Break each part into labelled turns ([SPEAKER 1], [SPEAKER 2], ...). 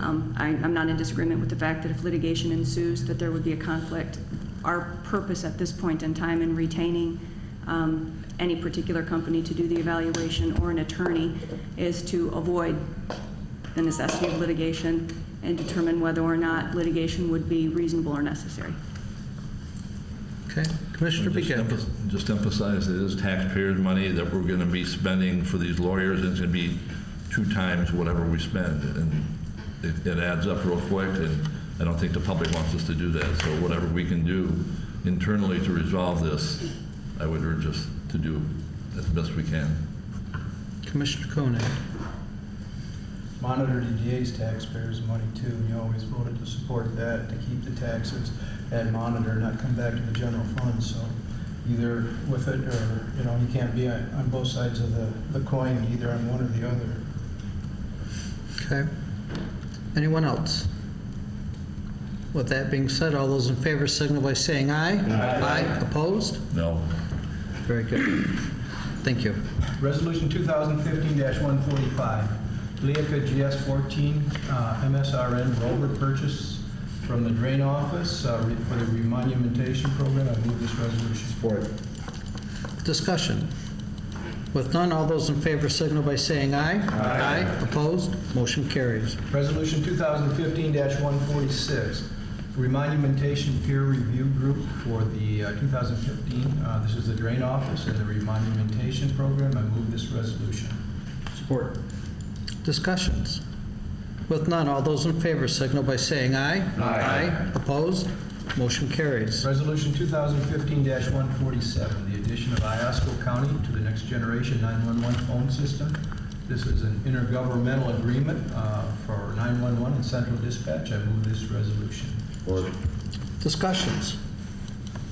[SPEAKER 1] Um, I- I'm not in disagreement with the fact that if litigation ensues, that there would be a conflict. Our purpose at this point in time in retaining um, any particular company to do the evaluation or an attorney is to avoid the necessity of litigation and determine whether or not litigation would be reasonable or necessary.
[SPEAKER 2] Okay, Commissioner
[SPEAKER 3] Just
[SPEAKER 2] Beckett.
[SPEAKER 3] emph- Just emphasize, it is taxpayers' money that we're going to be spending for these lawyers, and it's going to be two times whatever we spend, and it it adds up real quick, and I don't think the public wants us to do that, so whatever we can do internally to resolve this, I would urge us to do as best we can.
[SPEAKER 2] Commissioner Koenig.
[SPEAKER 4] monitor the DA's taxpayers' money too, and you always voted to support that, to keep the taxes and monitor, not come back to the general fund, so either with it, or, you know, you can't be on on both sides of the, the coin, either on one or the other.
[SPEAKER 2] Okay. Anyone else? With that being said, all those in favor signal by saying aye. Aye. Opposed?
[SPEAKER 3] No?
[SPEAKER 2] Very good. Thank you.
[SPEAKER 4] Resolution 2015-145, Leica GS14 uh, MSRN rover purchase from the drain office uh, re- for the remonumentation program. I move this resolution. Support.
[SPEAKER 2] Discussion. With none, all those in favor signal by saying aye. Aye. Opposed? Motion carries.
[SPEAKER 4] Resolution 2015-146, remonumentation peer review group for the uh, 2015, uh, this is the drain office and the remonumentation program. I move this resolution.
[SPEAKER 2] Support. Discussions. With none, all those in favor signal by saying aye. Aye. Opposed? Motion carries.
[SPEAKER 4] Resolution 2015-147, the addition of Iosco County to the Next Generation 911 phone system. This is an intergovernmental agreement uh, for 911 and central dispatch. I move this resolution.
[SPEAKER 2] Discussions?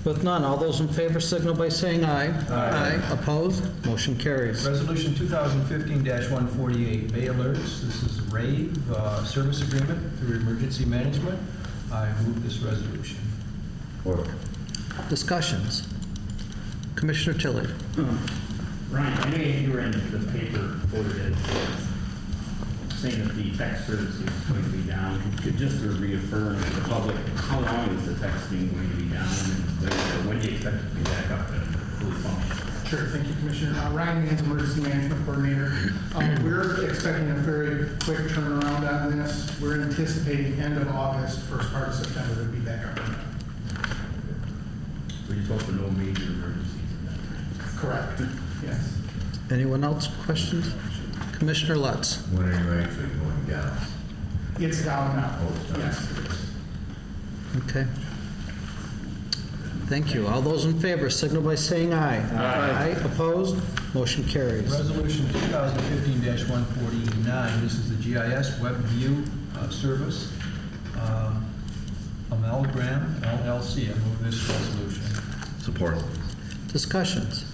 [SPEAKER 2] With none, all those in favor signal by saying aye. Aye. Opposed? Motion carries.
[SPEAKER 4] Resolution 2015-148, Bay Alerts. This is RAVE uh, service agreement through emergency management. I move this resolution.
[SPEAKER 2] Discussions? Commissioner Tilly?
[SPEAKER 5] Ryan, I know you were in the paper quoted as saying that the text service is going to be down. Could just to reaffirm to the public, how long is the texting going to be down? And when- when do you expect it to be back up to full function?
[SPEAKER 6] Sure, thank you, Commissioner. Uh, Ryan Mans, Emergency Management Coordinator. Uh, We're expecting a very quick turnaround on this. We're anticipating end of August, first part of September to be back up.
[SPEAKER 5] We just hope for no major emergencies in that time.
[SPEAKER 6] Correct. Yes.
[SPEAKER 2] Anyone else questions? Commissioner Lutz?
[SPEAKER 7] When are you actually going down?
[SPEAKER 6] It's down now.
[SPEAKER 7] Oh, it's down.
[SPEAKER 6] Yes.
[SPEAKER 2] Okay. Thank you. All those in favor signal by saying aye. Aye. Opposed? Motion carries.
[SPEAKER 4] Resolution 2015-149, this is the GIS Web View uh, Service. uh, Amalgam LLC. I move this resolution.
[SPEAKER 3] Support.
[SPEAKER 2] Discussions?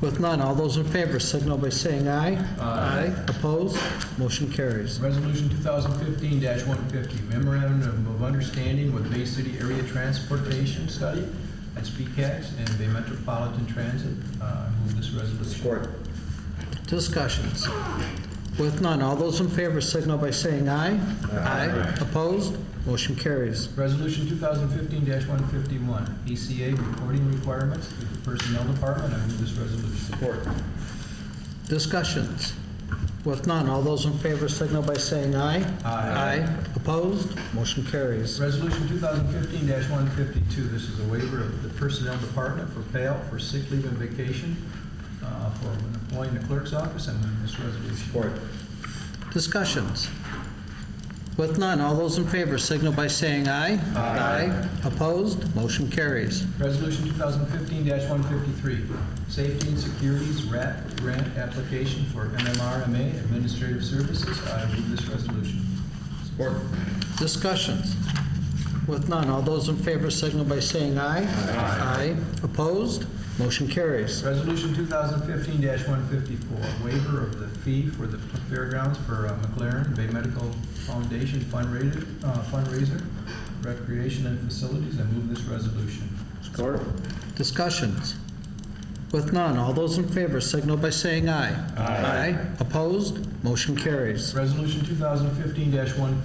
[SPEAKER 2] With none, all those in favor signal by saying aye. Aye. Opposed? Motion carries.
[SPEAKER 4] Resolution 2015-150, memorandum of understanding with Bay City Area Transportation Study, that's BCAS, and Bay Metropolitan Transit. Uh, I move this resolution. Support.
[SPEAKER 2] Discussions? With none, all those in favor signal by saying aye. Aye. Opposed? Motion carries.
[SPEAKER 4] Resolution 2015-151, ACA E reporting requirements to the Personnel Department. I move this resolution. Support.
[SPEAKER 2] Discussions? With none, all those in favor signal by saying aye.
[SPEAKER 4] Aye.
[SPEAKER 2] Opposed? Motion carries.
[SPEAKER 4] Resolution 2015-152, this is a waiver of the Personnel Department for payout for sick leave and vacation uh, for an employee in the clerk's office. I move this resolution. Support.
[SPEAKER 2] Discussions? With none, all those in favor signal by saying aye. Aye. Opposed? Motion carries.
[SPEAKER 4] Resolution 2015-153, Safety and Securities RAP Grant Application for MMRMA Administrative Services. I move this resolution. Support.
[SPEAKER 2] Discussions? With none, all those in favor signal by saying aye. Aye. Opposed? Motion carries.
[SPEAKER 4] Resolution 2015-154, waiver of the fee for the fairgrounds for uh, McLaren Bay Medical Foundation fundraiser, uh, fundraiser, recreation and facilities. I move this resolution.
[SPEAKER 2] Discussions? With none, all those in favor signal by saying aye. Aye. Opposed? Motion carries.
[SPEAKER 4] Resolution 2015-155,